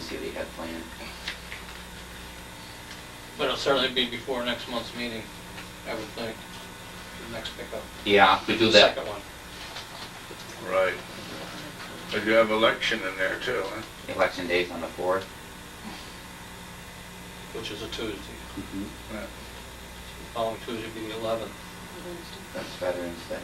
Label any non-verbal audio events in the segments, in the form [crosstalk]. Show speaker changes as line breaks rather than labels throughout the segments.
see what he had planned.
But it'll certainly be before next month's meeting, I would think, the next pickup.
Yeah, we do
The
that.
Second one.
Right. But you have election in there too, huh?
Election day's on the fourth.
Which is a Tuesday. Following Tuesday would be the 11th.
That's Veterans Day.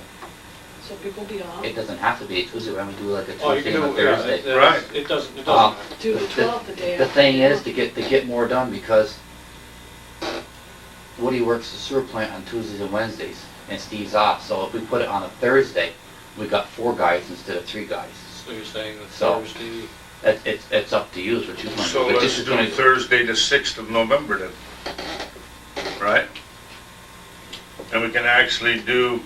So people be off,
It doesn't have to be a Tuesday, why don't we do like a
Oh, you
Tuesday
can do
and a
it, yeah,
Thursday?
it- it-
Right.
It doesn't, it
Uh,
doesn't matter.
do the
But the-
12th the day
The
after.
thing is
[laughs]
to get, to get more done because Woody works the sewer plant on Tuesdays and Wednesdays and Steve's off. So if we put it on a Thursday, we got four guys instead of three guys.
So you're saying that
So-
Thursday,
It, it's, it's up to you, it's what you want.
So
But this
let's
is
do
gonna-
Thursday, the sixth of November then. Right? And we can actually do,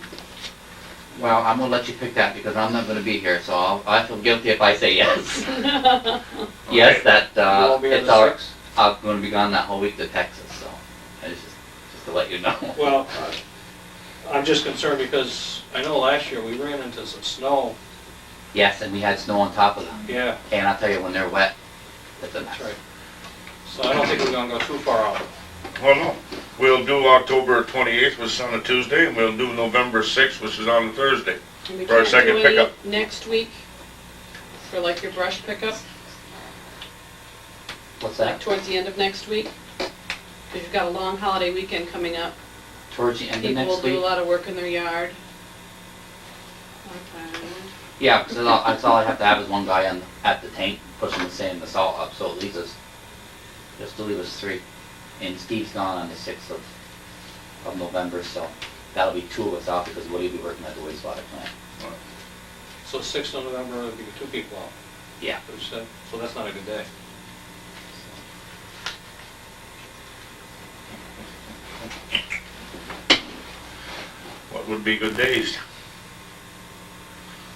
Well, I'm gonna let you pick that because I'm not gonna be here, so I'll, I feel guilty if I say yes. Yes,
Okay.
that,
you
uh,
won't be on
it's
the
our,
6th?
I'm gonna be gone that whole week to Texas, so, I just, just to let you know. [laughs]
Well, I'm just concerned because I know last year we ran into some snow.
Yes, and we had snow on top of them,
Yeah,
and I'll tell you, when they're wet, it's a
that's
mess.
right. So I don't think we're gonna go too far out.
well, no, we'll do October twenty-eighth, which is on a Tuesday, and we'll do November sixth, which is on a Thursday.
And we
for our
can't
second
do any
pickup.
Next week, for like your brush pickup,
What's
like
that?
towards the end of next week? Because you've got a long holiday weekend coming up,
Towards the end of
people will
next
do a
week?
lot of work in their yard. Okay.
Yeah, because that's all I have to have is one guy on, at the tank pushing the sand and the salt up, so it leaves us, just to leave us three. And Steve's gone on the sixth of, of November, so that'll be two of us out because Woody will be working at the wastewater plant.
So 6th of November, there'll be two people out.
Yeah.
Which, uh, So that's not a good day.
What would be good days?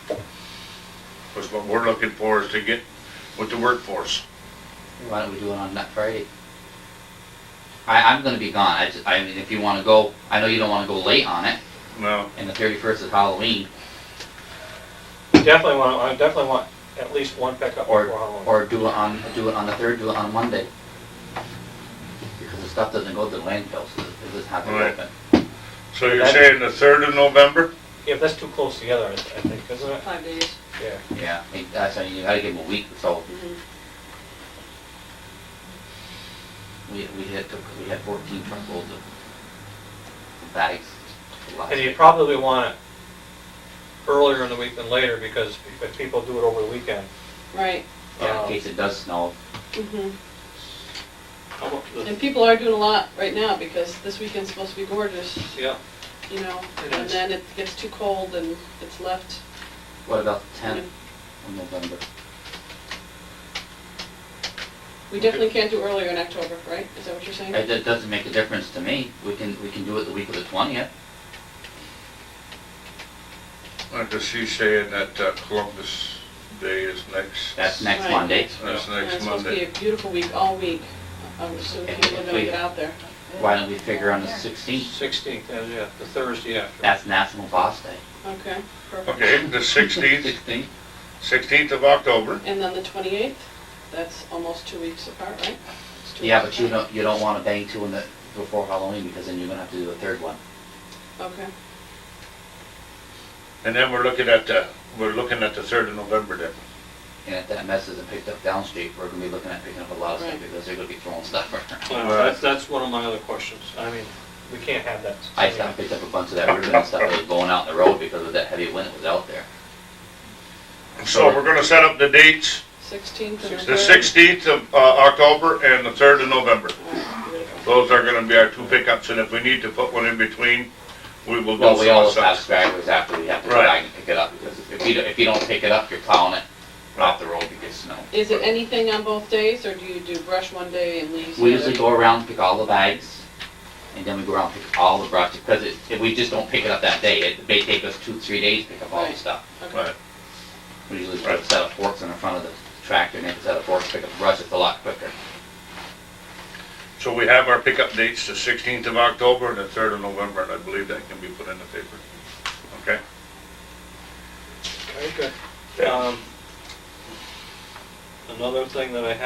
Because what we're looking for is to get with the workforce.
Why don't we do it on that Friday? I, I'm gonna be gone, I just, I mean, if you wanna go, I know you don't wanna go late on it,
Now,
and the thirty-first is Halloween,
Definitely want, I definitely want at least one pickup
Or-
before Halloween.
or do it on, do it on the third, do it on Monday. Because the stuff doesn't go to the landfill, so it doesn't have to
Right.
open.
so you're
That-
saying the third of November?
Yeah, but that's too close together, I I think, isn't it?
Five days.
Yeah.
Yeah, I think that's, why you gotta give them a week, so
Mhm.
we, we had, took- we had fourteen truckloads of bags last
And you
year.
probably want it earlier in the week than later, because if people do it over the weekend.
Right,
Yeah, in
um,
case it does snow,
mhm.
how about the-
And people are doing a lot right now, because this weekend's supposed to be gorgeous,
Yeah,
you know?
It
And
is.
then it gets too cold and it's left,
what about the
you know,
tenth of November?
We definitely can't do earlier in October, right? Is that what you're saying?
It, it doesn't make a difference to me, we can, we can do it the week of the twentieth.
Because she's saying that uh, Columbus Day is next.
That's next
Right.
Monday.
That's
And
next
It's supposed to
Monday.
be a beautiful week, all week, um, so
If-
people
if
don't
we-
get out there.
Why don't we figure on the 16th?
16th, yeah, yeah, the Thursday after.
That's National Boss Day.
Okay, perfect.
Okay, the sixteenth,
16th?
sixteenth of October.
And then the 28th, that's almost two weeks apart, right? It's two
Yeah,
weeks
but you
apart.
don't, you don't want to bang two in the, before Halloween because then you're gonna have to do a third one.
Okay,
And then we're looking at the, we're looking at the third of November then.
And if that mess isn't picked up down street, we're gonna be looking at picking up a lot of stuff
Right.
because they're gonna be throwing stuff around.
Well, Uh, That's, that's one of my other questions. I mean, we can't have that.
I stopped, picked up a bunch of that ribbon and stuff that was blowing out in the road because of that heavy wind that was out there.
So we're gonna set up the dates,
16th and the 3rd.
the sixteenth of uh, October and the third of November.
All right, beautiful.
Those are gonna be our two pickups, and if we need to put one in between, we will do
Well, we
so.
always have
so-
stragglers after we have to go
Right.
back and pick it up because if you, don't- if you don't pick it up, you're plowing it off the road because snow.
Is it anything on both days, or do you do brush one day and leaves the
We
other?
usually go around, pick all the bags, and then we go around, pick all the brush, because it- if we just don't pick it up that day, it may take us two, three days to pick up all the
Right.
stuff.
Okay,
Right.
We usually put a set of forks in the front of the tractor, and then a set of forks, pick up the brush, it's a lot quicker.
So we have our pickup dates, the sixteenth of October and the third of November, and I believe that can be put in the paper. Okay?
Very good. Um, Another thing that I have